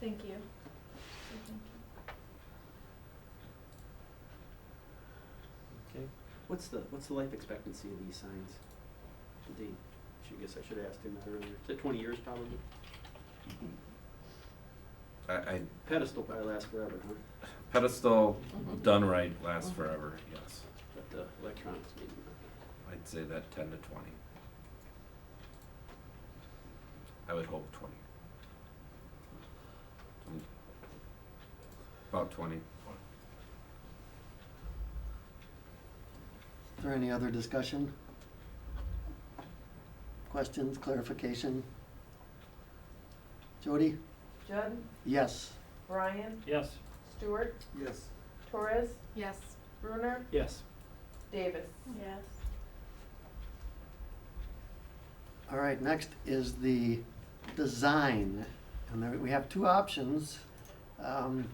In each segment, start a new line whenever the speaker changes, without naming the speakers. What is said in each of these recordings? Thank you.
Okay, what's the, what's the life expectancy of these signs? Should they, should, I guess I should have asked him that earlier, is it twenty years probably?
I, I,
Pedestal probably lasts forever, huh?
pedestal done right lasts forever, yes.
But the electronics maybe not.
I'd say that ten to twenty. I would hope twenty. Mm. About twenty.
Is there any other discussion? Questions, clarification? Jody?
Judd,
Yes.
Brian,
Yes.
Stewart,
Yes.
Torres,
Yes.
Brunner,
Yes.
Davis.
Yes.
All right, next is the design. And there, we have two options. Um,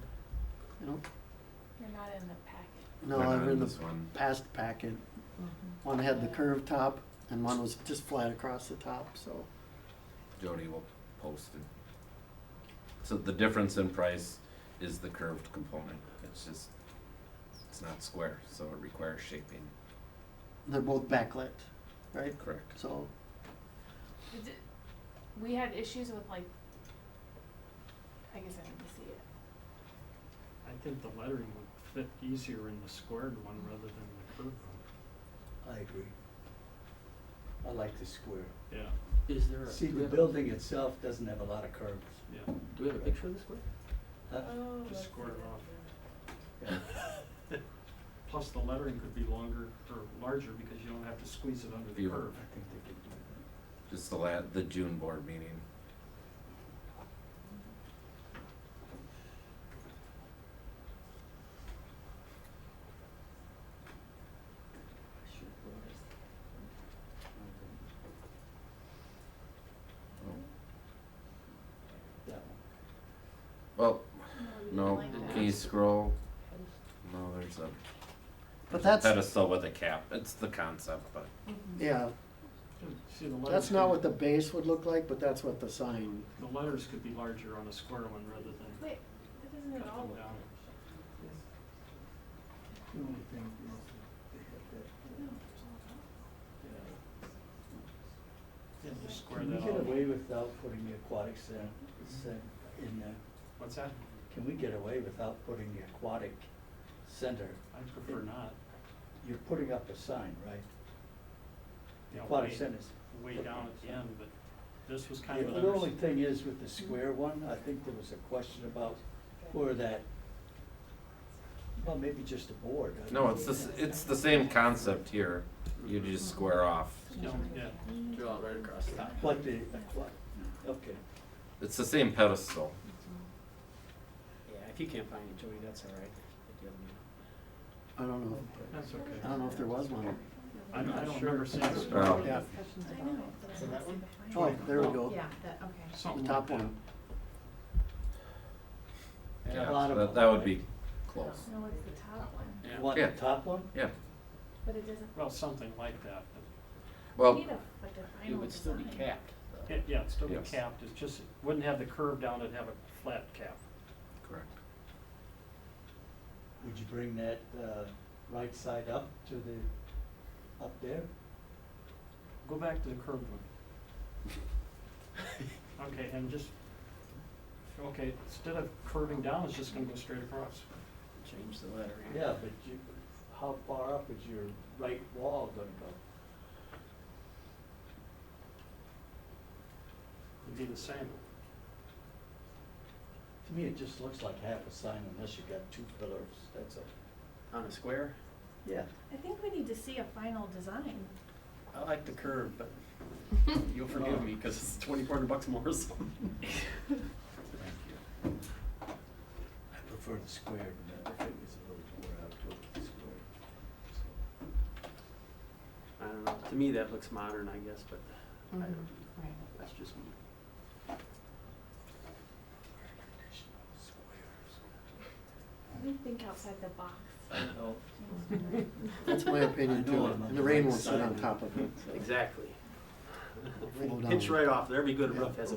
you know,
You're not in the packet.
no,
We're not
I'm
in
in the
this one.
past packet. One had the curved top and one was just flat across the top, so.
Jody will post it. So the difference in price is the curved component. It's just, it's not square, so it requires shaping.
They're both backlit, right?
Correct.
So,
We did- We had issues with like, I guess I didn't see it.
I think the lettering would fit easier in the squared one rather than the curved one.
I agree. I like the square.
Yeah,
Is there a?
See,
do we
the
have a-
building itself doesn't have a lot of curves.
yeah.
Do we have a picture of this one?
huh?
Oh,
Just
let's see
square it
that.
off.
Yeah.
Plus, the lettering could be longer or larger because you don't have to squeeze it under the
Yeah.
curve.
I think they could do that.
Just the la, the June board meeting.
Should work. That one.
Well,
we didn't
no,
like that.
can you scroll? No, there's a
but that's,
pedestal with a cap. It's the concept, but
yeah,
See, the letters.
that's not
could-
what the base would look like, but that's what the sign
The letters could be larger on a square one rather than
Wait, that doesn't
cut
at all
them
look.
down.
The only thing is that they have that,
No,
uh,
it's all
yeah.
Yeah, just square
Can we
that
get
off.
away without putting the aquatic cen- cen- in there?
What's that?
Can we get away without putting the aquatic center?
I prefer not.
You're putting up a sign, right?
you
The
know,
aquatic
way-
center's.
Way down at the end, but this was kind of an.
The only
unders-
thing is with the square one, I think there was a question about where that, well, maybe just a board. I
no,
don't
it's the s-
know.
it's the same concept here. You just square off.
No, yeah,
Draw it right across the top.
But the, aqua- okay,
It's the same pedestal.
Yeah, if you can't find it, Joey, that's all right. Get the other one.
I don't know.
that's okay.
I don't know if there was one.
I don't, I
not
don't
sure.
remember seeing a square.
Oh.
one.
Yeah.
I know. So that one?
Oh, there we go.
Yeah, that, okay.
The
Something like
top
that.
one.
and
Yeah,
a lot
so
of
that
them.
that would be close.
No, it's the top one,
You want
Yeah.
the top one?
Yeah.
but it doesn't,
Well, something like that, but
we
Well,
need a, like a final design.
It would still be capped, though.
Yeah, yeah, it's still be
Yes.
capped, it's just, it wouldn't have the curve down, it'd have a flat cap.
correct.
Would you bring that, uh, right side up to the, up there?
Go back to the curved one. Okay, and just, okay, instead of curving down, it's just gonna go straight across.
Change the lettering.
Yeah, but you, how far up is your right wall gonna go?
It'd be the same.
To me, it just looks like half a sign unless you got two pillars, that's all.
On a square,
Yeah.
I think we need to see a final design.
I like the curve, but you'll forgive me, cause it's twenty-four hundred bucks more or something.
Thank you. I prefer the square, but I think it's a little more out to the square. So,
I don't know, to me that looks modern, I guess, but I
Mm-hmm.
Mhm.
don't,
Right.
that's just me.
We think outside the box.
you know,
That's my opinion
I know
too.
I'm on
And the
the
rain
right
won't sit
side
on
of it.
top of it.
Exactly.
Roll
Pinch
down.
right off, there. every good roof has a